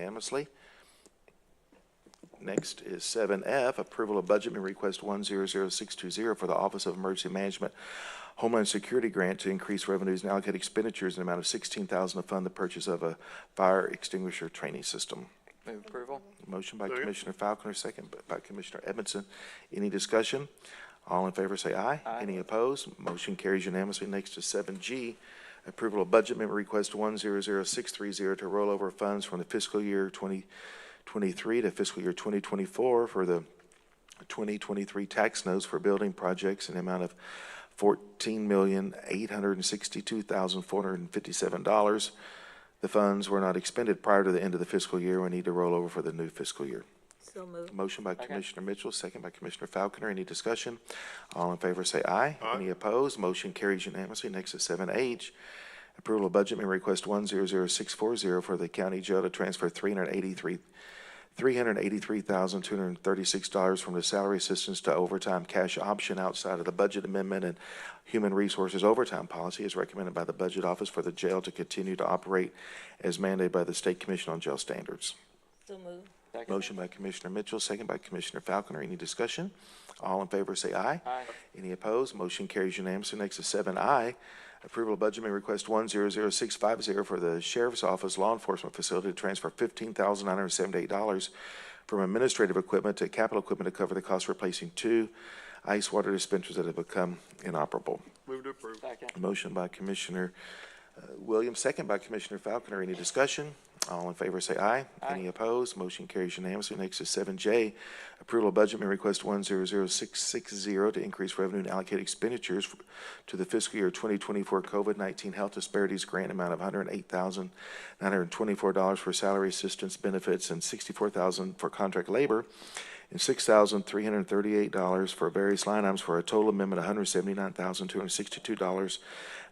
unanimously. Next is seven F, approval of budget amendment request one zero zero six two zero for the Office of Emergency Management Homeland Security Grant to increase revenues and allocate expenditures in the amount of sixteen thousand to fund the purchase of a fire extinguisher training system. Move approval? Motion by Commissioner Falconer, second by Commissioner Edmondson. Any discussion? All in favor, say aye. Aye. Any opposed? Motion carries unanimously. Next is seven G, approval of budget amendment request one zero zero six three zero to roll over funds from the fiscal year twenty twenty-three to fiscal year twenty twenty-four for the 2023 tax notes for building projects in the amount of $14,862,457. The funds were not expended prior to the end of the fiscal year. We need to roll over for the new fiscal year. So moved. Motion by Second. Commissioner Mitchell, second by Commissioner Falconer. Any discussion? All in favor say aye. Any opposed? Motion carries unanimously. Next is seven H. Approval of budget amendment request one zero zero six four zero for the county jail to transfer three hundred eighty-three, three hundred eighty-three thousand, two hundred and thirty-six dollars from the salary assistance to overtime cash option outside of the budget amendment and human resources overtime policy as recommended by the Budget Office for the jail to continue to operate as mandated by the State Commission on Jail Standards. So moved. Second. Motion by Commissioner Mitchell, second by Commissioner Falconer. Any discussion? All in favor, say aye. Aye. Any opposed? Motion carries unanimously. Next is seven I, approval of budget amendment request one zero zero six five zero for the Sheriff's Office Law Enforcement Facility to transfer fifteen thousand nine hundred seventy-eight dollars from administrative equipment to capital equipment to cover the cost of replacing two ice water dispensers that have become inoperable. Move to approve. Second. Motion by Commissioner uh, Williams, second by Commissioner Falconer. Any discussion? All in favor, say aye. Aye. Any opposed? Motion carries unanimously. Next is seven J, approval of budget amendment request one zero zero six six zero to increase revenue and allocate expenditures f- to the fiscal year twenty twenty-four COVID-nineteen health disparities grant amount of hundred and eight thousand nine hundred and twenty-four dollars for salary assistance benefits and sixty-four thousand for contract labor and six thousand three hundred and thirty-eight dollars for various line items for a total amendment of one hundred seventy-nine thousand two hundred sixty-two dollars.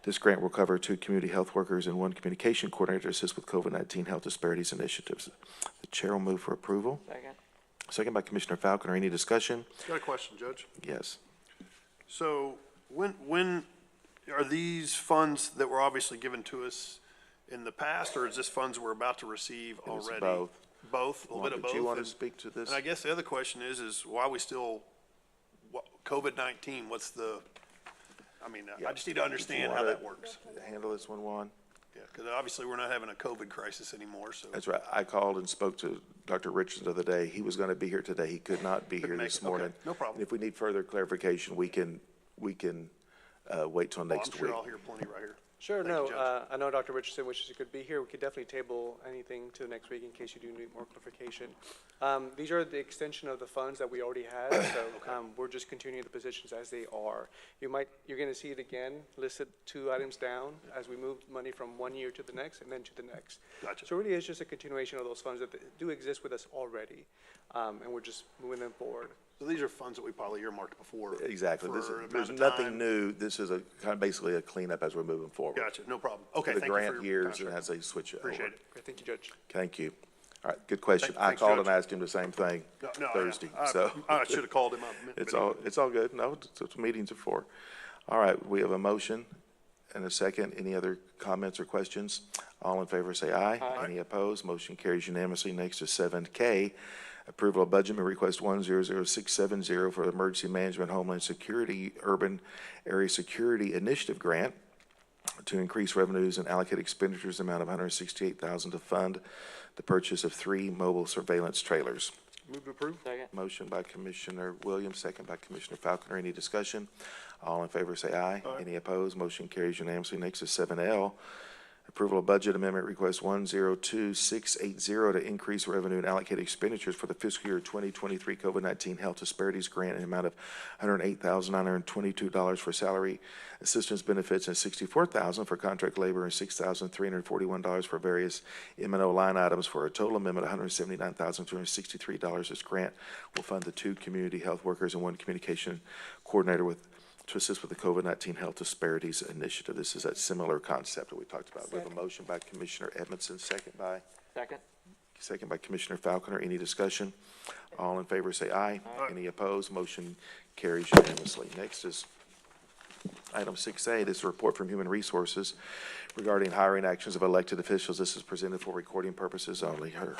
This grant will cover two community health workers and one communication coordinator to assist with COVID-nineteen health disparities initiatives. The chair will move for approval. Second. Second by Commissioner Falconer. Any discussion? Got a question, Judge. Yes. So when, when, are these funds that were obviously given to us in the past, or is this funds we're about to receive was already? both. Both, a little bit of both? Did you want to And- speak to this? And I guess the other question is, is why we still, what, COVID-19, what's the, I mean, I- Yeah. I just need to understand how wanna- that works. Handle this one, Juan? Yeah, because obviously we're not having a COVID crisis anymore, so. That's right. I called and spoke to Dr. Richards the other day. He was going to be here today. He could not be here Couldn't make this it. Okay. morning. No problem. And if we need further clarification, we can, we can uh, wait till Well, I'm next week. sure I'll hear plenty right here. Sure, Thank you, no, Judge. uh, I know Dr. Richardson wishes he could be here. We could definitely table anything to the next week in case you do need more clarification. Um, These are the extension of the funds that we already had, so um, we're just continuing the positions as they are. You might, you're going to see it again, listed two items down as we move money from one year to the next and then to the next. Gotcha. So it really is just a continuation of those funds that do exist with us already, um, and we're just moving them forward. So these are funds that we probably earmarked before. Exactly. This, for an there's amount of nothing time. new. This is a, kind of basically a cleanup as we're moving forward. Gotcha, no problem. Okay, The thank you for your grant years and contract. as they switch it over. Appreciate it. Okay, Thank you, Judge. Thank you. All right, good question. Thank- I thanks, called Judge. and asked him the same thing No, no, I- Thursday, I- so. I should have called him up. It's all, it's all good. No, it's what meetings are for. All right, we have a motion and a second. Any other comments or questions? All in favor, say aye. Any opposed? Motion carries unanimously. Next is seven K, approval of budget amendment request one zero zero six seven zero for Emergency Management Homeland Security Urban Area Security Initiative Grant to increase revenues and allocate expenditures amount of one hundred sixty-eight thousand to fund the purchase of three mobile surveillance trailers. Move to approve? Second. Motion by Commissioner Williams, second by Commissioner Falconer. Any discussion? All in favor, say aye. Any opposed? Motion carries unanimously. Next is seven L. Approval of Budget Amendment Request one zero two six eight zero to increase revenue and allocate expenditures for the fiscal year twenty twenty-three COVID nineteen Health Disparities Grant in the amount of one hundred eight thousand nine hundred twenty-two dollars for salary assistance benefits and sixty-four thousand for contract labor and six thousand three hundred forty-one dollars for various M and O line items for a total amendment of one hundred seventy-nine thousand two hundred sixty-three dollars. This grant will fund the two community health workers and one communication coordinator with to assist with the COVID-19 Health Disparities Initiative. This is that similar concept that we talked about. We have a motion by Commissioner Edmondson, second by, Second. second by Commissioner Falconer. Any discussion? All in favor, say aye. Any opposed? Motion carries unanimously. Next is Item six A, this is a report from Human Resources regarding hiring actions of elected officials. This is presented for recording purposes only. Her-